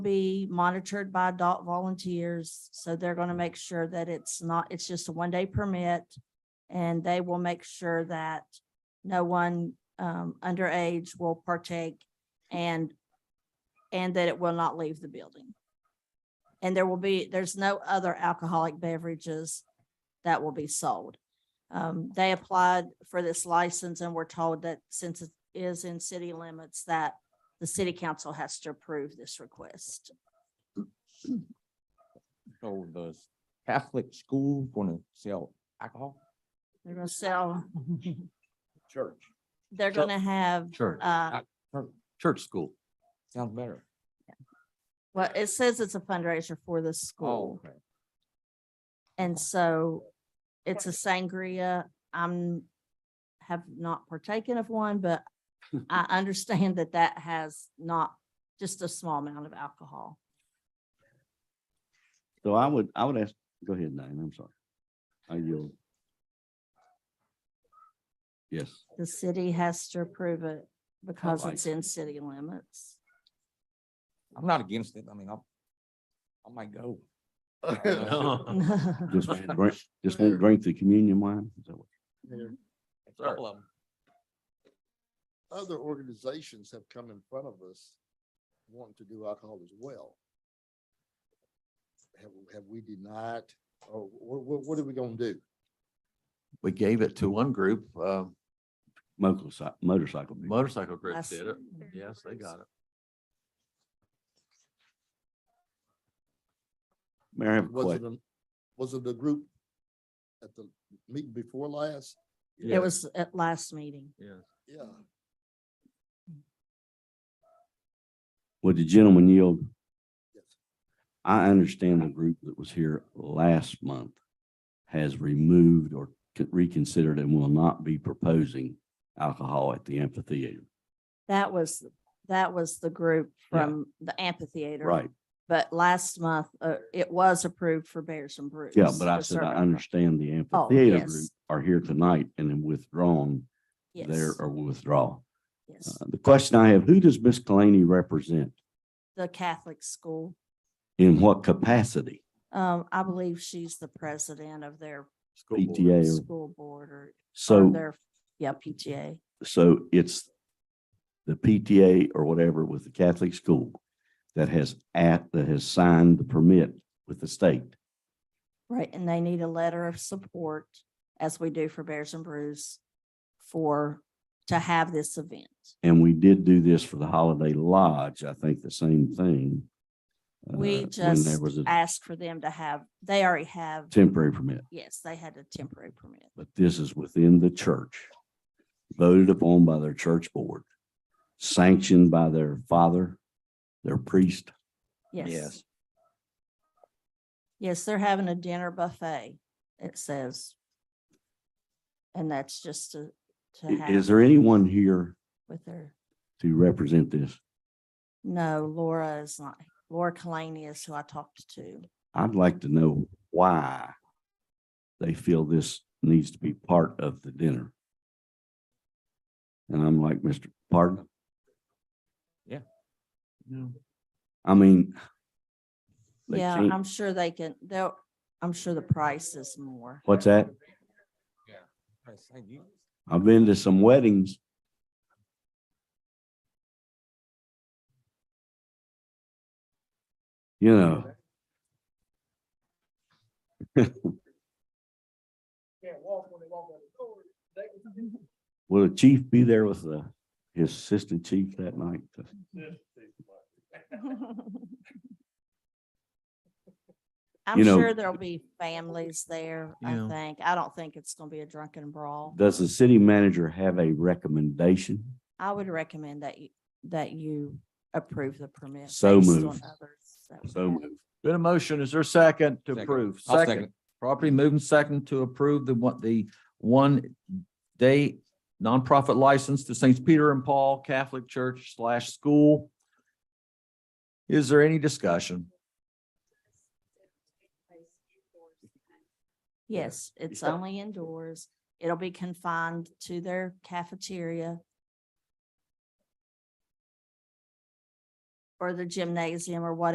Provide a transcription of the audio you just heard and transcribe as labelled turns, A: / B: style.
A: be monitored by adult volunteers. So they're going to make sure that it's not, it's just a one-day permit. And they will make sure that no one um, underage will partake and, and that it will not leave the building. And there will be, there's no other alcoholic beverages that will be sold. Um, They applied for this license and were told that since it is in city limits, that the city council has to approve this request.
B: So the Catholic school gonna sell alcohol?
A: They're gonna sell,
B: Church.
A: they're
B: So-
A: gonna have,
C: Church,
A: uh,
C: church school.
B: Sounds better.
A: well, it says it's a fundraiser for the
B: Oh,
A: school.
B: okay.
A: And so it's a sangria. I'm, have not partaken of one, but I understand that that has not, just a small amount of alcohol.
D: So I would, I would ask, go ahead, Diane, I'm sorry. I yield. Yes,
A: The city has to approve it because it's
D: license.
A: in city limits.
B: I'm not against it. I mean, I'll, I might go.
C: No.
D: just won't drink, just won't drink the communion wine. Is that what-
C: Couple of 'em.
E: other organizations have come in front of us wanting to do alcohol as well. Have, have we denied, or what, what, what are we gonna do?
C: We gave it to one group, uh,
D: Motorcycle, motorcycle. people.
C: motorcycle group
A: Last-
C: did it. Yes, they got it.
D: Mayor, I have a
E: Was it,
D: question.
E: a- was it the group at the meeting before last?
A: It was at last meeting.
E: Yeah.
D: Would the gentleman yield?
E: Yes.
D: I understand the group that was here last month has removed or c- reconsidered and will not be proposing alcohol at the amphitheater.
A: That was, that was the group
D: Yeah.
A: from the amphitheater.
D: Right,
A: But last month, uh, it was approved for Bears and Brews.
D: yeah, but I
A: for
D: said, I
A: serving-
D: understand the amphitheater group
A: yes.
D: are here tonight and then withdrawn there
A: Yes,
D: or will withdraw.
A: yes.
D: Uh, The question I have, who does Miss Kalani represent?
A: The Catholic school,
D: In what capacity?
A: um, I believe she's the president of their
C: School board.
D: PTA? or-
A: school board or- or
D: So,
A: their, yeah, PTA.
D: so it's the PTA or whatever with the Catholic school that has at, that has signed the permit with the state.
A: Right, and they need a letter of support, as we do for Bears and Brews, for, to have this event.
D: And we did do this for the Holiday Lodge, I think the same thing. uh,
A: We
D: when There
A: just
D: was a
A: asked for them to have, they already have,
D: temporary permit,
A: yes, they had a temporary permit.
D: but this is within the church, voted upon by their church board, sanctioned by their father, their priest.
A: Yes.
B: Yes.
A: Yes, they're having a dinner buffet, it says. And that's just to, to
D: I- Is
A: have
D: there anyone here
A: with their,
D: to represent this?
A: no, Laura is not, Laura Kalani is who I talked to.
D: I'd like to know why they feel this needs to be part of the dinner. And I'm like, Mr. Pardon?
B: Yeah.
D: I mean, They
A: Yeah,
D: can't-
A: I'm sure they can, they'll, I'm sure the price is more.
D: what's that?
B: I say you-
D: I've been to some weddings. You know. Will the chief be there with the, his assistant chief that night?
A: I'm
D: You know-
A: sure there'll be families there, I
C: Yeah.
A: think. I don't think it's gonna be a drunken brawl.
D: Does the city manager have a recommendation?
A: I would recommend that you, that you approve the permit.
D: So
A: based on
D: moved.
A: others that we
D: So
A: have.
D: moved.
C: Been a motion. Is there a second to
B: Second.
C: approve?
B: I'll second it.
C: Property moving second to approve the one, the one day nonprofit license to Saints Peter and Paul Catholic Church slash school. Is there any discussion?
A: Yes, it's
D: Yeah.
A: only indoors. It'll be confined to their cafeteria. Or the gymnasium or whatever